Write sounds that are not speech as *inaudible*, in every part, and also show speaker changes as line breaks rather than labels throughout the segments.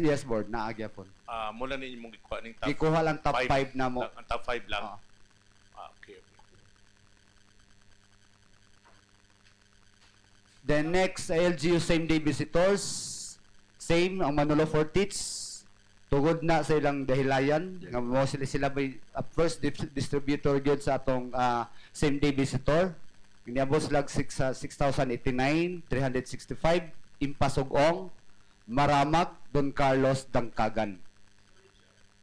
Yes, board. Naagya po.
Ah, mula ninyo mong ikuha ng top
Ikuha lang top 5 na mo.
Ang top 5 lang.
Oo.
Ah, okay, okay.
Then next, LGU same day visitors. Same, ang Manolo Fortits. Tugod na sa ilang dahilayan. Nga mo sila sila may uh, first dip- distributor gyud sa atong ah, same day visitor. Niabot sila six- ah, 6,089, 365, Impasugong, Maramak, Don Carlos, Dangkagan.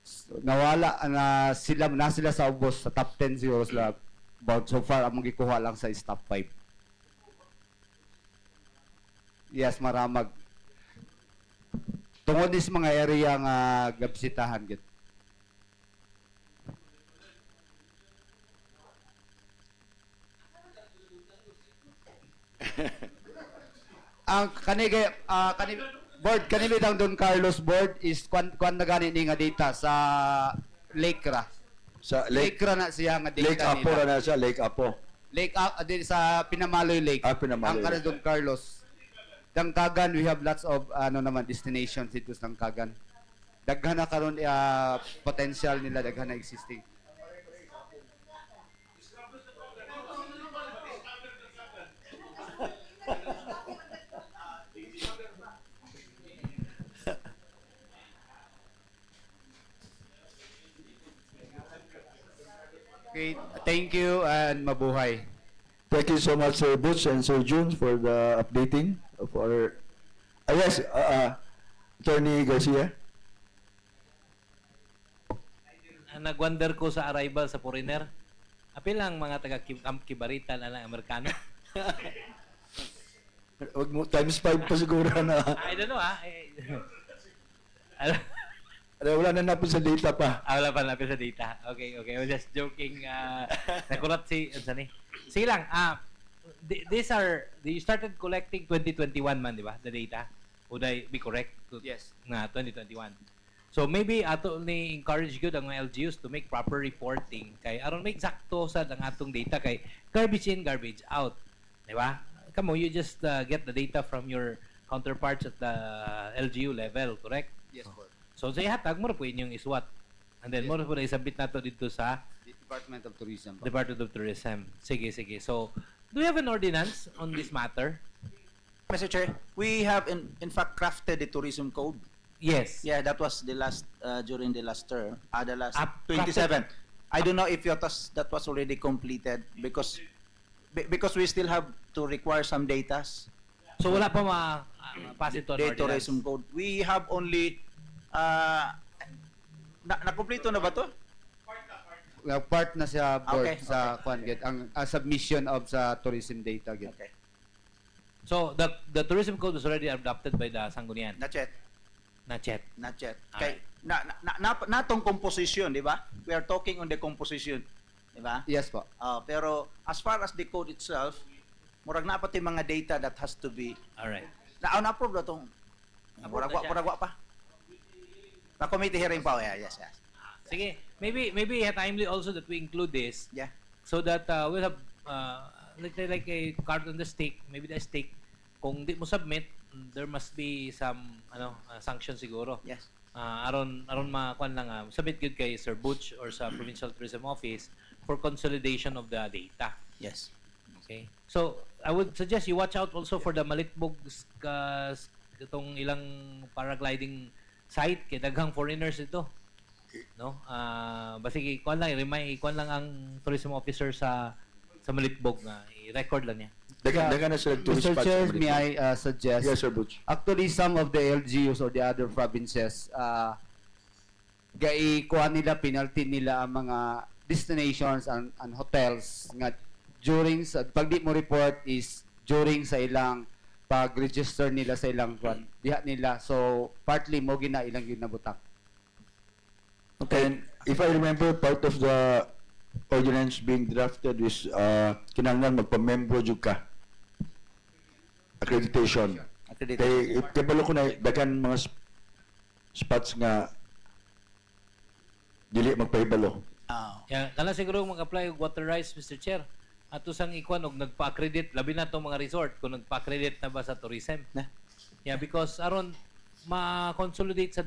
S- Nawala ah, na sila na sila sa ubos sa top 10 zeros la about so far ang magikuha lang sa is top 5. Yes, maramag. Tungod is mga area nga gabsitahan gid. *laughs* Ang kani kay ah, kani board kani bitang Don Carlos board is kwan kwan na gani ni nga data sa Lake ra.
Sa
Lake,
Lake,
ra na siya nga data
Lake Apo
nila.
na siya, Lake Apo.
Lake ah, ah, din sa Pinamaloy Lake.
Ah, Pinamaloy
Ang kanan
Lake.
doon, Carlos. Dangkagan, we have lots of ano naman destinations dito sa Dangkagan. Daghan na karon ah, potential nila daghan na existing. Okay, thank you and mabuhay.
Thank you so much, Sir Butch and Sir June, for the updating of our... Ah, yes, uh, uh, Attorney Garcia.
Ang nagwonder ko sa arrival sa foreigner, apil ang mga taga Kim- Camp Kibarita na lang Amerikano. *laughs*
Wag mo, times five pa siguro
*laughs*
na.
I *laughs* don't know ah. Eh, Al-
Ano, Wala na napin sa data pa.
ah, wala pa lapis sa data. Okay, okay. I was just joking. Uh, nakulat si, ano saan eh? Sige lang, ah, th- these are, you started collecting 2021 man, di ba? The data. Would I be correct? To,
Yes.
Na 2021. So maybe ato ni encourage gyud ang mga LGUs to make proper reporting kay aron may eksakto sad ang atong data kay garbage in garbage out, di ba? Kamo you just uh, get the data from your counterparts at the LGU level, correct?
Yes, board.
So sa ihatag mo ra po inyong iswat. And then mo ra po na isabit nato dito sa
Department of Tourism. board.
Department of Tourism. Sige, sige. So, do you have an ordinance on this matter?
Mr. Chair, we have in, in fact crafted the tourism code.
Yes.
Yeah, that was the last, uh, during the last term, uh, the last
Up-
twenty-seven. I don't know if Yotas, that was already completed because, be- because we still have to require some datas.
So wala pa ma uh, pass it on
The
ordinance.
tourism code. We have only, uh, na, nakumpleto na ba to?
Nga part na siya board
Okay,
sa kwan gid ang ah, submission of sa tourism data gid.
Okay,
So the the tourism code was already adopted by the Sangguniang.
not yet,
Not yet.
not yet.
Alright.
Okay, na, na, na, na- natong composition, di ba? We are talking on the composition, di ba?
Yes po.
Ah, pero as far as the code itself, murag na pati mga data that has to be
All right.
na on approve na tong murag wa
siya.
murag wa pa. Na committee hearing pa yeah, yes, yes.
Sige. Maybe maybe yeah, timely also that we include this
Yeah.
so that uh, we'll have uh, like like a card on the stake, maybe the stake kung di mo submit, there must be some ano uh, sanction siguro.
Yes.
Ah, aron aron makuan lang ah, submit good kay Sir Butch or sa Provincial Tourism Office for consolidation of the data.
Yes.
Okay. So, I would suggest you watch out also for the Malitbog uh, itong ilang paragliding site kay daghang foreigners ito. No? Ah, basig ikuan lang i-remind ikuan lang ang tourism officer sa sa Malitbog na i-record lang niya.
Dagan, dagan na sila tourist
Mr.
spots.
Chair, may I ah, suggest
Yes, Sir Butch.
actually some of the LGUs or the other provinces uh, gai kuha nila penalty nila ang mga destinations and, and hotels nga during sa pag di mo report is during sa ilang pag-register nila sa ilang kwan diha nila so partly mo gina ilang yun nabutang
Okay. And if I remember, part of the ordinance being drafted is uh, kinanglan magpamembro jud ka. Accreditation.
Accredited.
Kay kabalo ko na dagan mga sp- spots nga dili magpahibalo.
Ah.
Yeah, kana siguro mag-apply og water rights Mr. Chair. Ato sang ikuan og nagpa-accredit labi na tong mga resort kung nagpa-accredit na ba sa tourism.
Na.
Yeah, because aron ma-consolidate sa